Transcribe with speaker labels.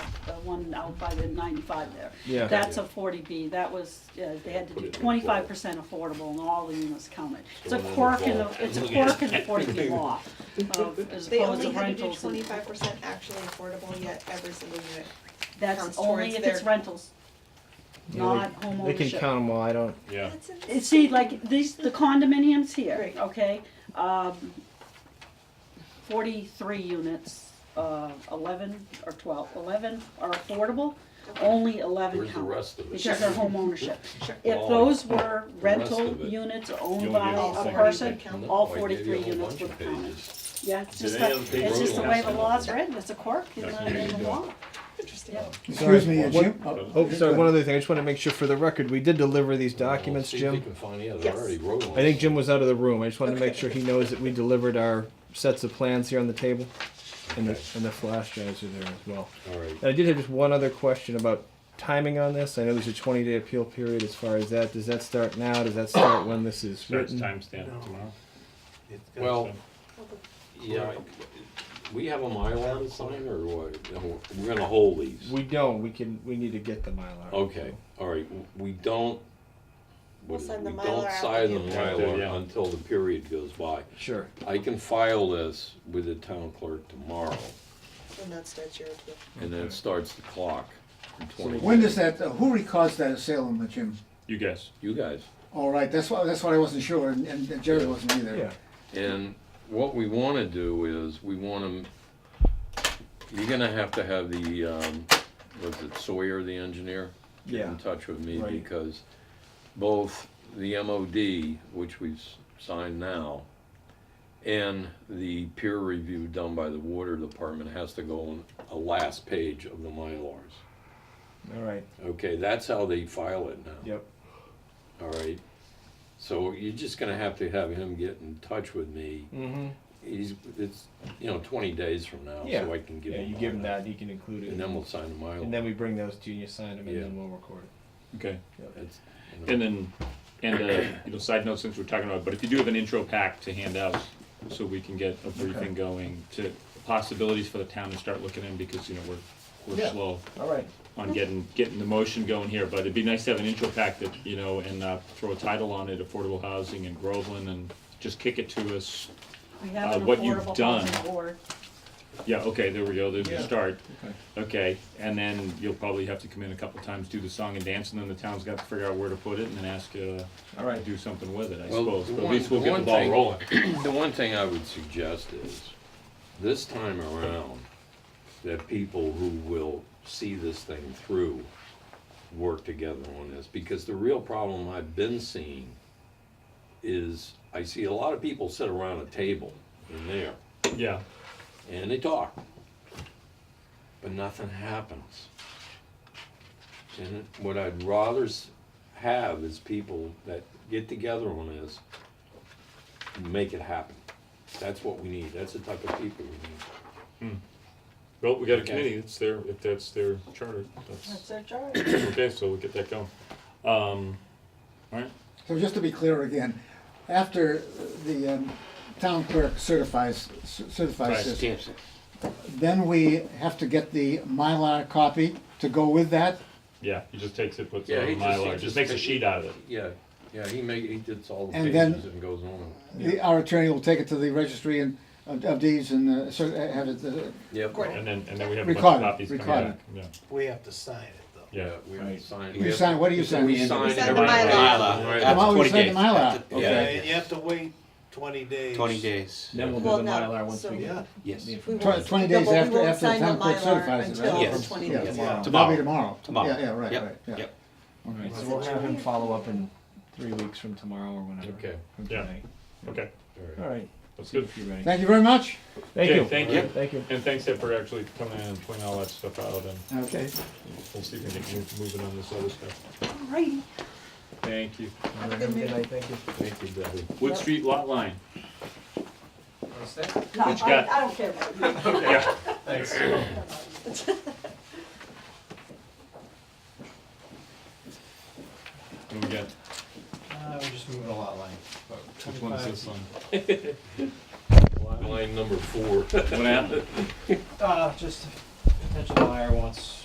Speaker 1: one out by the ninety-five there.
Speaker 2: Yeah.
Speaker 1: That's a forty B, that was, uh, they had to do twenty-five percent affordable and all the units counted. It's a quirk in the, it's a quirk in the forty B law, of, as
Speaker 3: They
Speaker 1: opposed to
Speaker 3: only had to do
Speaker 1: rentals and,
Speaker 3: twenty-five percent actually affordable, yet every single unit.
Speaker 1: that's
Speaker 3: counts
Speaker 1: only if
Speaker 3: towards
Speaker 1: it's
Speaker 3: their-
Speaker 1: rentals, not home
Speaker 2: They can count them while I don't.
Speaker 4: Yeah.
Speaker 3: That's
Speaker 1: Uh,
Speaker 3: insane.
Speaker 1: See, like these, the condominiums here,
Speaker 3: Right.
Speaker 1: okay, um, forty-three units, uh, eleven or twelve, eleven are affordable, only eleven
Speaker 5: Where's the
Speaker 1: count.
Speaker 5: rest of it?
Speaker 1: Because they're home ownership.
Speaker 3: Sure.
Speaker 1: If
Speaker 5: All
Speaker 1: those were
Speaker 5: the rest
Speaker 1: rental
Speaker 5: of it.
Speaker 1: units
Speaker 4: You
Speaker 1: owned
Speaker 4: only
Speaker 1: by
Speaker 4: get the
Speaker 1: a
Speaker 4: second
Speaker 1: person,
Speaker 4: page.
Speaker 3: Count.
Speaker 1: all
Speaker 5: Oh, I gave you a
Speaker 1: forty-three
Speaker 5: whole
Speaker 1: units
Speaker 5: bunch
Speaker 1: would
Speaker 5: of
Speaker 1: count.
Speaker 5: pages.
Speaker 1: Yeah, it's
Speaker 4: Did
Speaker 1: just
Speaker 4: any
Speaker 1: the,
Speaker 4: of the
Speaker 1: it's
Speaker 4: pages
Speaker 1: just the way
Speaker 4: have
Speaker 1: the
Speaker 4: some-
Speaker 1: law is written, it's a quirk in
Speaker 4: That's
Speaker 1: the, in
Speaker 4: what
Speaker 1: the
Speaker 4: you
Speaker 1: law.
Speaker 3: Interesting.
Speaker 1: Yeah.
Speaker 6: Excuse me,
Speaker 2: Sorry,
Speaker 6: it's you?
Speaker 2: one-
Speaker 6: Oh,
Speaker 2: Oh,
Speaker 6: okay,
Speaker 2: sorry.
Speaker 6: good.
Speaker 2: One other thing. I just want to make sure for the record, we did deliver these documents,
Speaker 5: Oh, See if you
Speaker 2: Jim.
Speaker 5: can find the others.
Speaker 3: Yes.
Speaker 5: I already wrote
Speaker 2: I
Speaker 5: one.
Speaker 2: think Jim was out of the room. I just wanted to make sure he knows that we delivered our sets of plans here on the table, and the
Speaker 5: Okay.
Speaker 2: and the flash drives are there as well.
Speaker 5: All right.
Speaker 2: And I did have just one other question about timing on this. I know there's a 20-day appeal period as far as that. Does that start now? Does that start when this is
Speaker 4: Starts
Speaker 2: written?
Speaker 4: timestamp tomorrow.
Speaker 5: Well, yeah, we have a Mylar to sign or what? No, We're gonna hold these.
Speaker 2: We don't. We can. We need to get the Mylar.
Speaker 5: Okay, all right, w- we don't,
Speaker 3: We'll
Speaker 5: we
Speaker 3: send the
Speaker 5: don't
Speaker 3: Mylar
Speaker 5: sign the
Speaker 3: after the-
Speaker 4: After, yeah.
Speaker 5: Mylar until the period goes by.
Speaker 2: Sure.
Speaker 5: I can file this with the town clerk tomorrow,
Speaker 3: And that starts your appeal.
Speaker 5: and then it starts the clock in twenty.
Speaker 6: When
Speaker 5: days.
Speaker 6: does that, uh, who records that in Salem, Jim?
Speaker 4: You guys.
Speaker 5: You guys.
Speaker 6: All right, that's why, that's why I wasn't sure, and- and Jerry wasn't either.
Speaker 2: Yeah.
Speaker 5: And what we want to do is, we want to, you're going to have to have the, um, was it Sawyer, the engineer? Get
Speaker 2: Yeah.
Speaker 5: in touch with me
Speaker 2: Right.
Speaker 5: because both the MOD, which we've s- signed now, and the peer review done by the water department has to go on a last page of the Mylars.
Speaker 2: All right.
Speaker 5: Okay, that's how they file it now.
Speaker 2: Yep.
Speaker 5: All right. So you're just going to have to have him get in touch with me
Speaker 2: Mm-hmm.
Speaker 5: He's, it's, you know, twenty days from now,
Speaker 2: Yeah.
Speaker 5: so I can give
Speaker 2: Yeah.
Speaker 5: him.
Speaker 2: You give him
Speaker 5: mine.
Speaker 2: that. You can include it.
Speaker 5: And then we'll sign a mile.
Speaker 2: And then we bring those to you, you sign them, and
Speaker 5: Yeah.
Speaker 2: then we'll record it.
Speaker 4: Okay.
Speaker 5: That's, you know,
Speaker 4: And then, and, uh, you know, side note since we're talking about, it, but if you do have an intro pack to hand out, so we can get a briefing going to possibilities for the town to start looking in, because, you know, we're, we're
Speaker 2: Yeah.
Speaker 4: slow
Speaker 2: All right.
Speaker 4: on getting, getting the motion going here, but it'd be nice to have an intro pack that, you know, and, uh, throw a title on it, affordable housing in Groveland, and just kick it to us.
Speaker 1: We have
Speaker 4: Uh,
Speaker 1: an
Speaker 4: what you've
Speaker 1: affordable
Speaker 4: done.
Speaker 1: housing board.
Speaker 4: Yeah, okay, there we go, there's the
Speaker 2: Yeah.
Speaker 4: start.
Speaker 2: Okay.
Speaker 4: Okay, and then you'll probably have to come in a couple times, do the song and dance, and then the town's got to figure out where to put it, and then ask you
Speaker 2: All
Speaker 4: to
Speaker 2: right.
Speaker 4: do something with it, I
Speaker 5: Well,
Speaker 4: suppose.
Speaker 5: the
Speaker 4: But at least
Speaker 5: one-
Speaker 4: we'll get the
Speaker 5: one
Speaker 4: ball
Speaker 5: thing-
Speaker 4: rolling.
Speaker 5: The one thing I would suggest is, this time around, that people who will see this thing through work together on this, because the real problem I've been seeing is, I see a lot of people sit around a table in there,
Speaker 4: Yeah,
Speaker 5: and they talk, but nothing happens. And what I'd rather s- have is people that get together on this, make it happen. That's what we need, that's the type of people we need.
Speaker 4: well, we got a
Speaker 5: Okay.
Speaker 4: committee, it's their, if that's their charter,
Speaker 1: That's
Speaker 4: that's,
Speaker 1: their charge.
Speaker 4: okay, so we'll get that going. Um, alright,
Speaker 6: So just to be clear again, after the um, town clerk certifies, cer- certifies
Speaker 4: Right.
Speaker 6: this, then we have to get the Mylar copy to go with that?
Speaker 4: yeah, he just takes it, puts it
Speaker 5: Yeah,
Speaker 4: on
Speaker 5: he
Speaker 4: a
Speaker 5: just- he
Speaker 4: Mylar, just
Speaker 5: just-
Speaker 4: makes a sheet out of it.
Speaker 5: Yeah, yeah, he make, he did all the
Speaker 6: And then-
Speaker 5: pages and goes on.
Speaker 6: The- Our attorney will take it to the registry and, of of deeds and uh, cer- have it, uh,
Speaker 5: Yep.
Speaker 3: Gordon.
Speaker 4: And then, and then we have a bunch of
Speaker 6: Recorded,
Speaker 4: copies coming
Speaker 6: recorded.
Speaker 4: back, yeah,
Speaker 7: We have to sign it, though.
Speaker 4: yeah.
Speaker 5: we have to sign.
Speaker 6: You sign- what do you sign?
Speaker 5: We
Speaker 6: We
Speaker 5: sign.
Speaker 3: sign the
Speaker 5: everything.
Speaker 3: Mylar.
Speaker 5: Right.
Speaker 6: I'm
Speaker 8: After
Speaker 6: always
Speaker 8: 20
Speaker 6: saying the
Speaker 8: days.
Speaker 6: Mylar,
Speaker 7: Yeah,
Speaker 6: okay.
Speaker 7: you have to wait twenty days.
Speaker 8: Twenty days.
Speaker 2: Then we'll do
Speaker 3: Well,
Speaker 2: the
Speaker 3: no,
Speaker 2: Mylar once
Speaker 3: so-
Speaker 2: we
Speaker 7: Yeah.
Speaker 2: get
Speaker 8: Yes.
Speaker 2: the
Speaker 3: We
Speaker 2: information.
Speaker 3: won't-
Speaker 6: Twenty
Speaker 3: no,
Speaker 6: days
Speaker 3: but we
Speaker 6: after-
Speaker 3: won't
Speaker 6: after the
Speaker 3: sign the
Speaker 6: town clerk
Speaker 3: Mylar
Speaker 6: certifies it,
Speaker 3: until
Speaker 6: right?
Speaker 8: Yes.
Speaker 3: the 20
Speaker 6: Yeah,
Speaker 3: days.
Speaker 7: Yeah.
Speaker 6: That'll be
Speaker 8: Tomorrow.
Speaker 6: tomorrow.
Speaker 8: Tomorrow.
Speaker 6: Yeah, yeah, right,
Speaker 8: Yep,
Speaker 6: right, yeah.
Speaker 8: Yep.
Speaker 2: All right, so we'll have him follow up in three weeks from tomorrow or whenever.
Speaker 5: Okay.
Speaker 2: From
Speaker 4: Yeah.
Speaker 2: tonight.
Speaker 4: Okay,
Speaker 2: All right.
Speaker 4: that's good.
Speaker 2: If you're ready.
Speaker 6: Thank you very much.
Speaker 2: Thank
Speaker 4: Okay,
Speaker 2: you.
Speaker 4: thank you.
Speaker 2: Thank you.
Speaker 4: And thanks Ed, for actually coming in and pointing all that stuff out, and
Speaker 6: Okay.
Speaker 4: we'll see if we can get move- moving on this other stuff.
Speaker 1: Right.
Speaker 4: Thank you.
Speaker 2: Have a good night. Thank you.
Speaker 5: Thank you, Debbie.
Speaker 4: Wood Street lot line.
Speaker 1: No,
Speaker 4: What you
Speaker 1: I,
Speaker 4: got?
Speaker 1: I don't care about you.
Speaker 4: Yeah.
Speaker 7: Thanks.
Speaker 4: What do we got?
Speaker 7: Uh, we're just moving a lot line.
Speaker 4: Which one is this one?
Speaker 5: Line number four.
Speaker 4: What happened?
Speaker 7: Uh, just a potential buyer wants